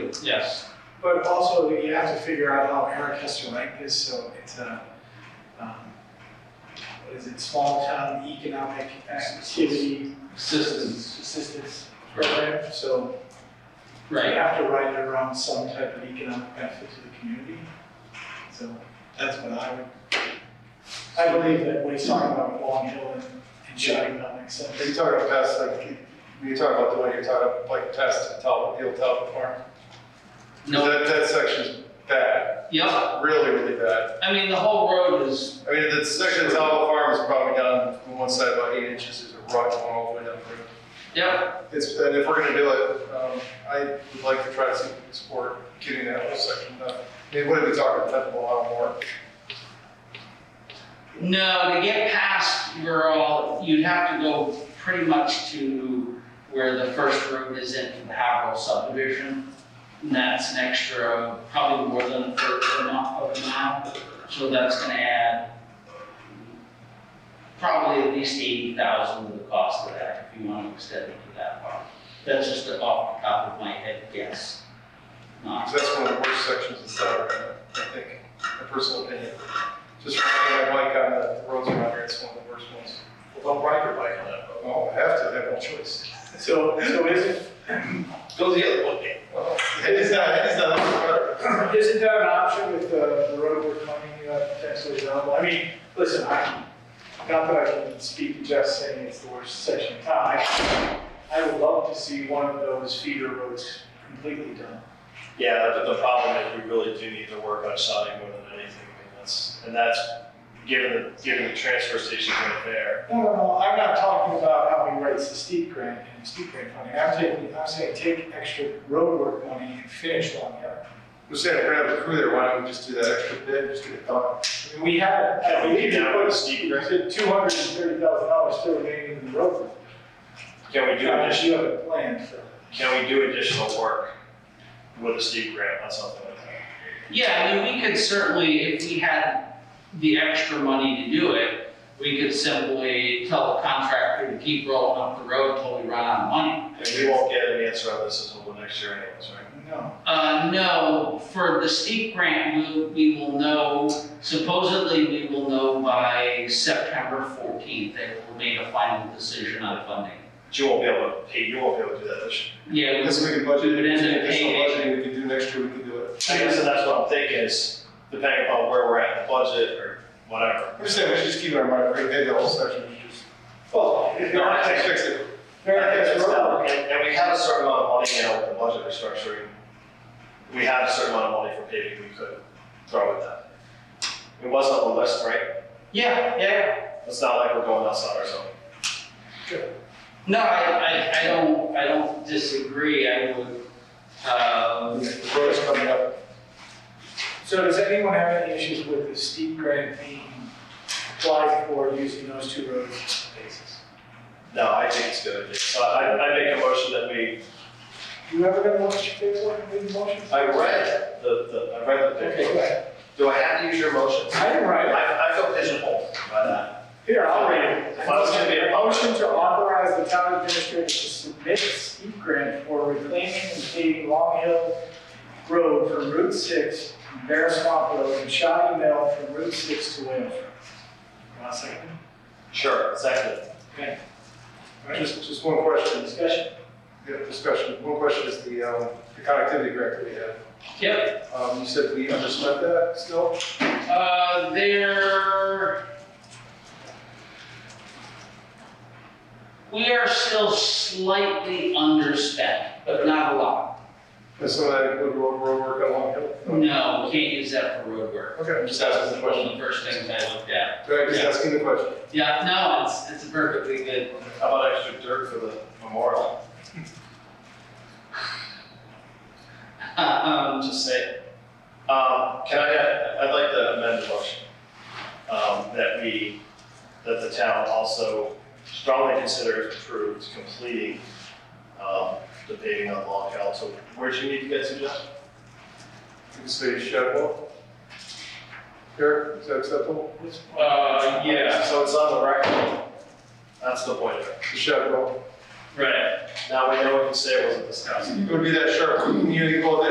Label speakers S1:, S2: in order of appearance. S1: do.
S2: Yes.
S3: But also, you have to figure out how Eric has to write this, so it's a, um, what is it, small town economic activity
S2: Assistance,
S3: assistance program, so you
S2: right.
S3: have to write it around some type of economic benefit to the community. So that's what I would, I believe that what he's talking about with Long Hill and and shutting down makes sense.
S4: Are you talking about pest, like, when you talk about the way you're talking about, like, pest and tell, you'll tell the farm?
S2: No,
S4: That, that section's bad,
S2: yep,
S4: really, really bad.
S2: I mean, the whole road is,
S4: I mean, that section of Talbot Farm is probably down on one side about eight inches, there's a rut going all the way down the road.
S2: yep,
S4: It's, and if we're gonna do it, um, I would like to try to see- support getting that whole section done. I mean, what are we talking, ten a lot more?
S2: no, to get past Rural, you'd have to go pretty much to where the first road is into the Haverhill subdivision. And that's an extra, probably more than a third of a mile, of a mile, so that's gonna add probably at least eighty thousand to the cost of that, if you wanna extend it to that part. That's just off the top of my head guess, not
S4: Because that's one of the worst sections in town, right now, I think, my personal opinion. Just riding my bike on uh, the roads around here, it's one of the worst ones.
S1: Well, don't ride your bike on that road.
S4: Oh, I have to, I have no choice.
S3: So, so is it,
S1: Go the other way.
S4: Well, It is not, it is not, better.
S3: Isn't that an option with the, the road we're coming, uh, potentially available? I mean, listen, I, not that I can speak to Jeff saying it's the worst section in town. I- I would love to see one of those feeder roads completely done.
S1: Yeah, but the problem is we really do need to work on sounding more than anything, I mean, that's, and that's, given the, given the transfer station right there.
S3: No, no, no, I'm not talking about how we raise the steep grant and steep grant funding. I'm taking, I'm saying take extra roadwork money and finish Long Hill.
S4: we're saying, if we're gonna have a crew there, why don't we just do that extra bit, just get it done?
S3: I mean, we had, I
S1: Can we
S3: believe,
S1: get
S3: we
S1: down with
S3: put
S1: steep grant?
S3: two hundred and thirty thousand dollars still remaining in the road.
S1: Can we do
S3: Unless
S1: additional,
S3: you have a plan for that.
S1: can we do additional work with a steep grant on something like that?
S2: Yeah, I mean, we could certainly, if we had the extra money to do it, we could simply tell the contractor to keep rolling up the road until we run out of money.
S1: And we won't get an answer on this until the next year anyways, right?
S3: No.
S2: Uh, no, for the steep grant, we, we will know, supposedly we will know by September fourteenth, they will make a final decision on funding.
S1: But you won't be able to pay, you won't be able to do that this year.
S2: Yeah,
S4: Unless we can
S2: Do
S4: budget,
S2: it in the
S4: additional
S2: paving.
S4: budgeting we can do next year, we can do it.
S1: I guess that's what I'm thinking is depending upon where we're at in the budget or whatever.
S4: I'm just saying, we should just keep it in mind, right, maybe the whole section, we just.
S3: Well, if
S1: No,
S3: you're
S1: I
S3: not,
S1: think-
S4: Fix it.
S3: that's wrong.
S1: And, and we have a certain amount of money now with the budget restructuring. We have a certain amount of money for paving we could throw at that. It wasn't on the list, right?
S2: yeah, yeah,
S1: It's not like we're going outside our zone.
S2: No, I, I, I don't, I don't disagree, I would, uh,
S4: The road is coming up.
S3: So does anyone have any issues with the steep grant being applied for using those two roads as a basis?
S1: No, I think it's good. So I, I make a motion that we,
S3: You ever gonna watch your paperwork and read the motions?
S1: I read the, the, I read the
S3: Okay, go
S1: paper.
S3: ahead.
S1: Do I have to use your motion?
S3: I didn't
S1: I,
S3: write it.
S1: I feel pigeonholed by that.
S3: Here, I'll read it.
S1: Motion to be-
S3: Motion to authorize the town administrator to submit steep grant for reclaiming and paving Long Hill Road from Route Six, from Bear Swamp Road, and Shawty Mill from Route Six to Whale. Want a second?
S1: Sure. Second.
S3: Okay. All right.
S4: Just, just one question,
S3: Discussion?
S4: yeah, discussion, one question is the, um, the connectivity grant that we had.
S2: yep,
S4: Um, you said we underspent that still?
S2: Uh, there. We are still slightly underspent, but not a lot.
S4: Does some of that include road, road work on Long Hill?
S2: No, we can't use that for road work.
S4: Okay, I'm just asking the
S2: One
S4: question.
S2: of the first things I looked at.
S4: Right, just asking the question.
S2: Yeah, no, it's, it's perfectly good.
S1: How about extra dirt for the memorial?
S2: Uh,
S1: I'm
S2: Um,
S1: just saying. Um, can I, I'd like to amend the motion, um, that we, that the town also strongly consider if approved completing, um, the paving on Long Hill. So where'd you need to get to, Jeff?
S4: You can say Shadwell. Eric, is that acceptable?
S2: uh, yeah,
S1: So it's on the record. That's the point of it.
S4: Shadwell.
S2: right.
S1: Now we know we can say it wasn't discussed.
S4: It would be that sharp, you know, you call it that